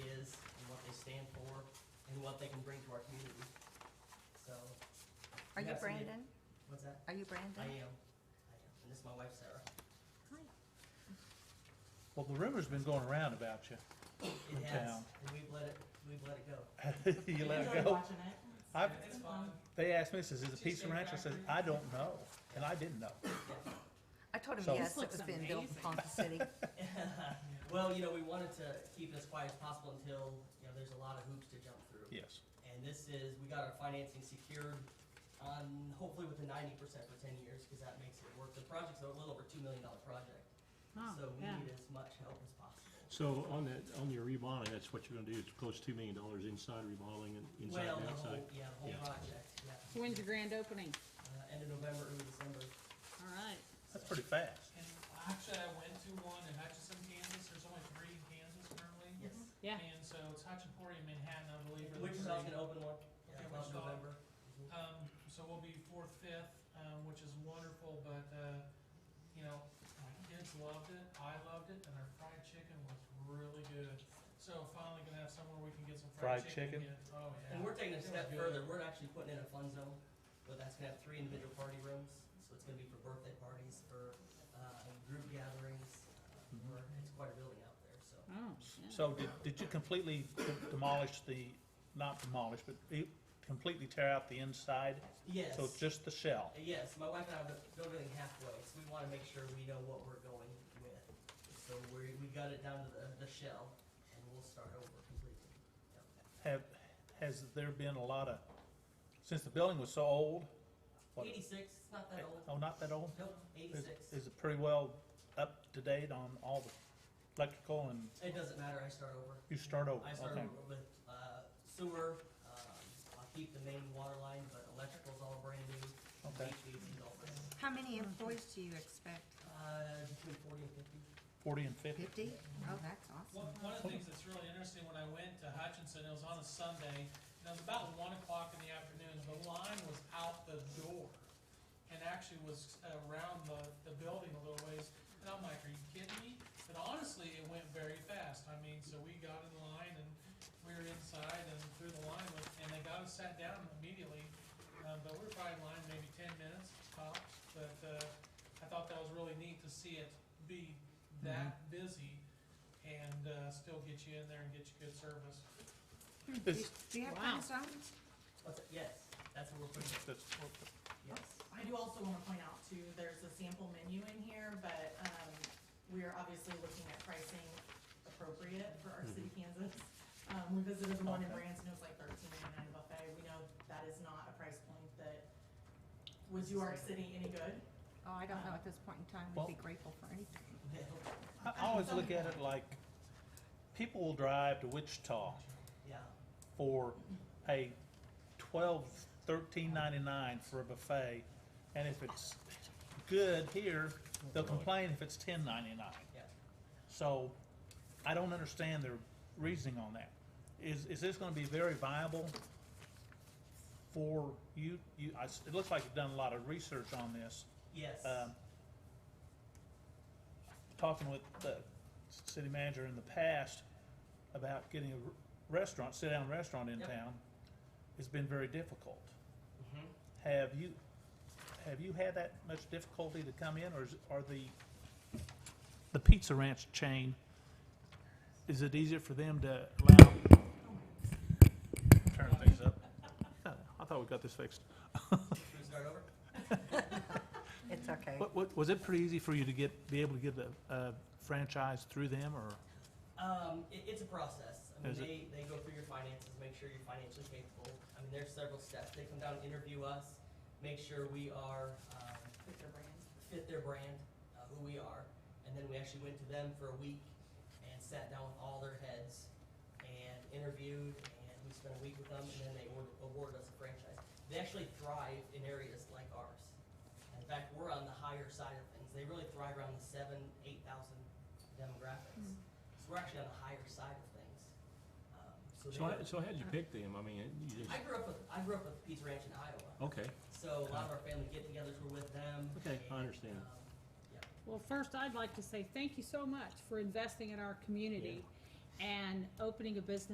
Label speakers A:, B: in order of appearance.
A: what they can bring to our community. So,
B: Are you
A: Yes, I'm here.
B: Brandon?
A: what's that?
B: Are you
A: I
B: Brandon?
A: am, I am, and this is my wife Sarah.
B: Hi.
C: Well, the rumor's been going around about you.
A: It has,
C: town.
A: and we've let it, we've let it go.
C: you let
D: enjoy
C: it go.
D: watching it.
C: I,
A: It's fun.
C: they asked me, says, is it
D: Cheesesteak
C: pizza ranch? I said,
D: factory.
C: I don't know, and I didn't know.
D: Mm-hmm.
B: I told him
C: So-
B: yes,
D: This
B: it was
D: looks
B: being built in
D: amazing.
B: Ponca City.
A: Well, you know, we wanted to keep it as quiet as possible until, you know, there's a lot of hoops to jump through.
C: Yes.
A: And this is, we got our financing secured on, hopefully with a ninety percent for ten years, because that makes it work. The project's a little over two million dollar project,
D: Oh,
A: so we
D: yeah.
A: need as much help as possible.
E: So on that, on your remodeling, that's what you're gonna do, is close two million dollars inside remodeling and inside
A: Well,
E: and
A: the
E: outside?
A: whole, yeah, the whole
E: Yeah.
A: project, yeah.
D: When's your grand opening?
A: Uh, end of November, early December.
D: All right.
C: That's pretty fast.
F: And actually, I went to one in Hutchinson, Kansas, there's only three in Kansas currently.
A: Yes.
D: Yeah.
F: And so it's Hutchinporium, Manhattan, I believe. are the
A: Wichita's
F: three.
A: gonna open one, yeah,
F: Okay,
A: about
F: Wichita.
A: November.
F: Um, so we'll be fourth, fifth, um, which is wonderful, but, uh, you know, my kids loved it, I loved it, and our fried chicken was really good. So finally gonna have somewhere we can get some fried
C: Fried
F: chicken.
C: chicken?
F: again. Oh, yeah.
A: And we're taking a
F: It was
A: step
F: good.
A: further, we're actually putting in a fun zone, but that's gonna have three individual party rooms, so it's gonna be for birthday parties, for, uh, group gatherings. uh,
C: Mhm.
A: we're- It's quite a building out there, so.
D: Oh, yeah.
C: So did, did you completely de- demolish the, not demolish, but you completely tear out the inside?
A: Yes, Uh,
C: So it's just the shell?
A: yes, my wife and I have built everything halfway, so we wanna make sure we know what we're going with. So we, we got it down to the, the shell, and we'll start over completely.
C: Have, has there been a lot of, since the building was so old? what-
A: Eighty-six, it's not that old,
C: Oh, not that old?
A: nope,
C: Is,
A: eighty-six.
C: is it pretty well up to date on all the electrical and
A: It doesn't matter, I start over.
C: you start over?
A: I
C: Okay.
A: started with uh, sewer, um, I'll keep the main water line, but electrical's all brand new.
C: Okay.
A: HVAC's all brand new.
B: How many employees do you expect?
A: Uh, between forty and fifty.
C: Forty and fifty?
B: Fifty? Oh, that's awesome.
F: One, one of the things that's really interesting, when I went to Hutchinson, it was on a Sunday, and it was about one o'clock in the afternoon, the line was out the door, and actually was around the, the building a little ways, and I'm like, are you kidding me? But honestly, it went very fast, I mean, so we got in line, and we were inside, and through the line, went- and they got us sat down immediately, um, but we were probably in line maybe ten minutes tops, but, uh, I thought that was really neat to see it be that busy, and uh, still get you in there and get you good service.
B: Do
C: It's-
B: do you have
D: Wow.
B: friends on?
A: What's it? Yes, that's what we're putting in,
C: that's-
A: yes.
G: I do also wanna point out too, there's a sample menu in here, but, um, we are obviously looking at pricing appropriate for our city Kansas. Um, we visited the one in
C: Mm-hmm. Okay.
G: Branson, it was like thirteen ninety-nine buffet, we know that is not a price point that would do our city any good.
B: Oh, I don't know at this point in time.
C: Well-
B: We'd be grateful for anything.
C: I I always look at it like, people will drive to Wichita
A: Yeah,
C: for a twelve, thirteen ninety-nine for a buffet, and if it's good here, they'll complain if it's ten ninety-nine.
A: yeah.
C: So, I don't understand their reasoning on that. Is, is this gonna be very viable for you, you, I s it looks like you've done a lot of research on this.
A: Yes,
C: um, talking with the city manager in the past about getting a restaurant, sit-down restaurant in
A: Yep.
C: town, has been very difficult.
A: Mhm.
C: Have you, have you had that much difficulty to come in, or is, are the, the Pizza Ranch chain, is it easier for them to allow? Turn things up. I thought we got this fixed.
A: should we start over?
B: It's okay.
C: What, what, was it pretty easy for you to get, be able to get a, a franchise through them, or?
A: Um, it, it's a process. I mean,
C: Is it?
A: they, they go through your finances, make sure you're financially capable. I mean, there's several steps. They come down and interview us, make sure we are, um,
G: With their brands.
A: fit their brand, uh, who we are, and then we actually went to them for a week and sat down with all their heads and interviewed, and we spent a week with them, and then they award- awarded us a franchise. They actually thrive in areas like ours. In fact, we're on the higher side of things. They really thrive around the seven, eight thousand demographics. So we're actually on the higher side of things. Um, so
E: So,
A: they-
E: I- so how'd you pick them? I mean, you
A: I
E: just,
A: grew up with I grew up with Pizza Ranch in Iowa,
E: okay,
A: so a lot of our family get-togethers were with them.
E: Okay, I
A: and,
E: understand.
A: um, yeah.
D: Well, first, I'd like to say thank you so much for investing in our community and opening a business